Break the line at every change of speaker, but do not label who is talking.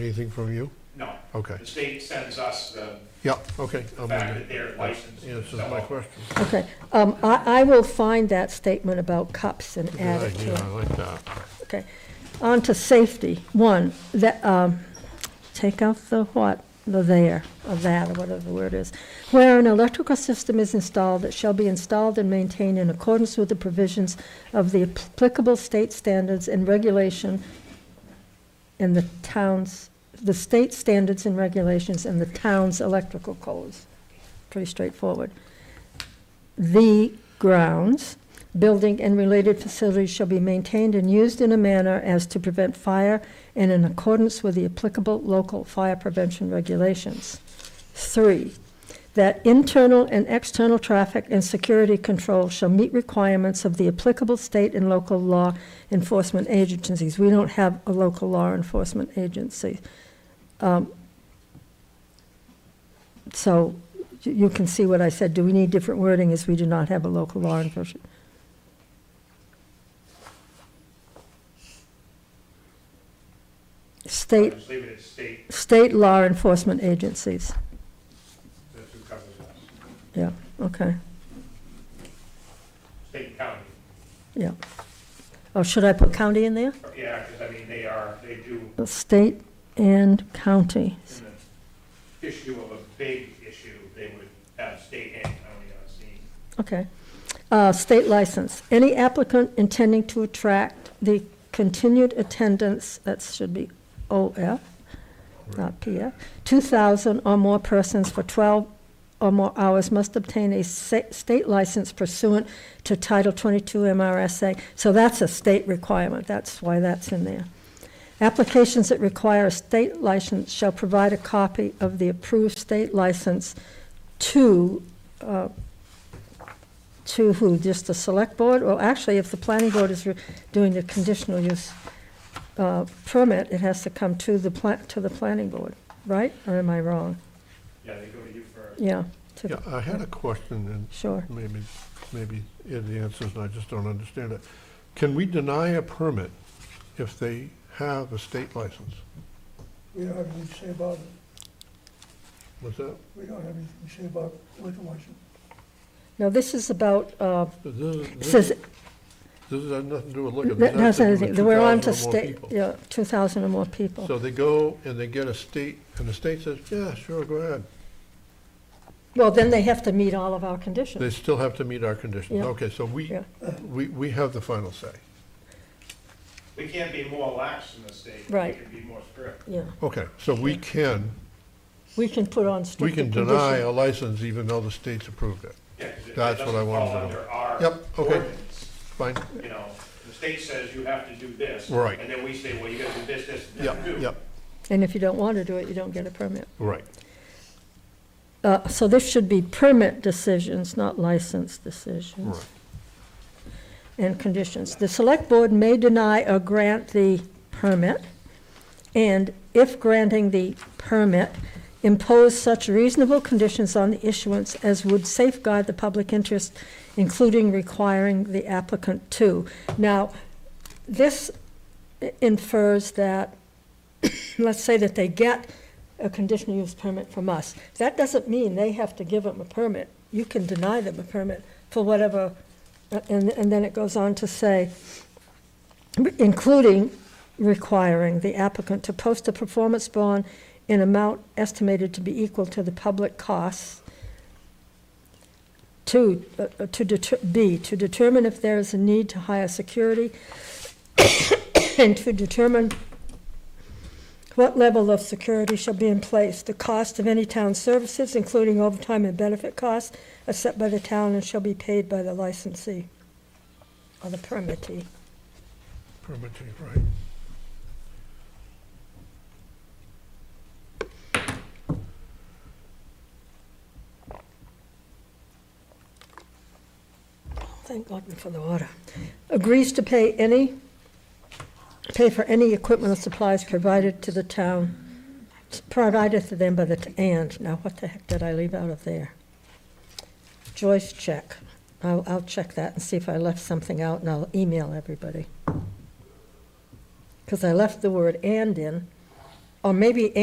Anything from you?
No,
Okay.
the state sends us the
Yep, okay. I'm with
fact
you.
that they're licensed. and
Answers
so
my
on.
question.
Okay, um, I, I will find that statement about cups and
Good
add it
idea, I
to it.
like that.
Okay, on to safety, one, that, um, take out the what, the there, or that, or whatever the word is. Where an electrical system is installed, it shall be installed and maintained in accordance with the provisions of the applicable state standards and regulation and the town's, the state standards and regulations and the town's electrical codes. Pretty straightforward. The grounds, building and related facilities shall be maintained and used in a manner as to prevent fire and in accordance with the applicable local fire prevention regulations. Three, that internal and external traffic and security control shall meet requirements of the applicable state and local law enforcement agencies. We don't have a local law enforcement agency. Um, So you- you can see what I said. Do we need different wording as we do not have a local law enforcement? State,
Just leave it at state,
state law enforcement agencies.
that's who covers us,
Yeah, okay,
state and county.
yeah. Oh, should I put county in there?
Yeah, because I mean, they are, they do
The State and county.
in the issue of a big issue, they would have state and county on scene.
Okay. Uh, State license. Any applicant intending to attract the continued attendance, that should be OF, not PF, 2,000 or more persons for 12 or more hours must obtain a sa- state license pursuant to Title 22 MRSA. So that's a state requirement. That's why that's in there. Applications that require a state license shall provide a copy of the approved state license to uh, to who, just the select board? Well, actually, if the planning board is re- doing the conditional use uh, permit, it has to come to the pla, to the planning board, right? Or am I wrong?
Yeah, they go to you first.
Yeah, to-
Yeah, I had a question,
sure.
and maybe, maybe it answers, and I just don't understand it. Can we deny a permit if they have a state license?
We don't have anything to say about it.
What's that?
We don't have anything to say about liquor license.
Now, this is about, uh,
This is-
it
this-
says,
This has nothing to do with liquor. This
that
has
doesn't
to do
anything,
with
we're on to
2,000 or more
state,
people.
yeah, two thousand or more people.
So they go and they get a state, and the state says, yeah, sure, go ahead.
Well, then they have to meet all of our
They
conditions.
still have to meet our conditions.
Yeah.
Okay, so we,
Yeah.
we, we have the final say.
We can't be more lax than the state.
Right.
We can be more strict.
Yeah,
Okay, so we can,
we can put on
we
stricter
can
conditions.
deny a license even though the state's approved it.
Yeah, 'cause it- it
That's what I
doesn't
wanted to
fall
know.
under our
Yep, okay.
ordinance.
Fine?
you know, the state says you have to do this.
Right.
And then we say, well, you gotta do this, this, and that,
Yep,
too.
yep,
And if you don't want to do it, you don't get a permit.
right.
Uh, so this should be permit decisions, not license decisions.
Right.
and conditions. The select board may deny or grant the permit, and if granting the permit, impose such reasonable conditions on the issuance as would safeguard the public interest, including requiring the applicant to. Now, this infers that, let's say that they get a conditional use permit from us. That doesn't mean they have to give them a permit. You can deny them a permit for whatever Uh, and, and then it goes on to say, including requiring the applicant to post a performance bond in amount estimated to be equal to the public costs. To, uh, uh, to deter, B, to determine if there is a need to hire security and to determine what level of security shall be in place? The cost of any town services, including overtime and benefit costs, are set by the town and shall be paid by the licensee or the permittee.
Permitting, right.
Thank God for the water. Agrees to pay any, pay for any equipment or supplies provided to the town, provided to them by the, t- and, now what the heck did I leave out of there? Joyce check. I'll, I'll check that and see if I left something out and I'll email everybody. Because I left the word and in, or maybe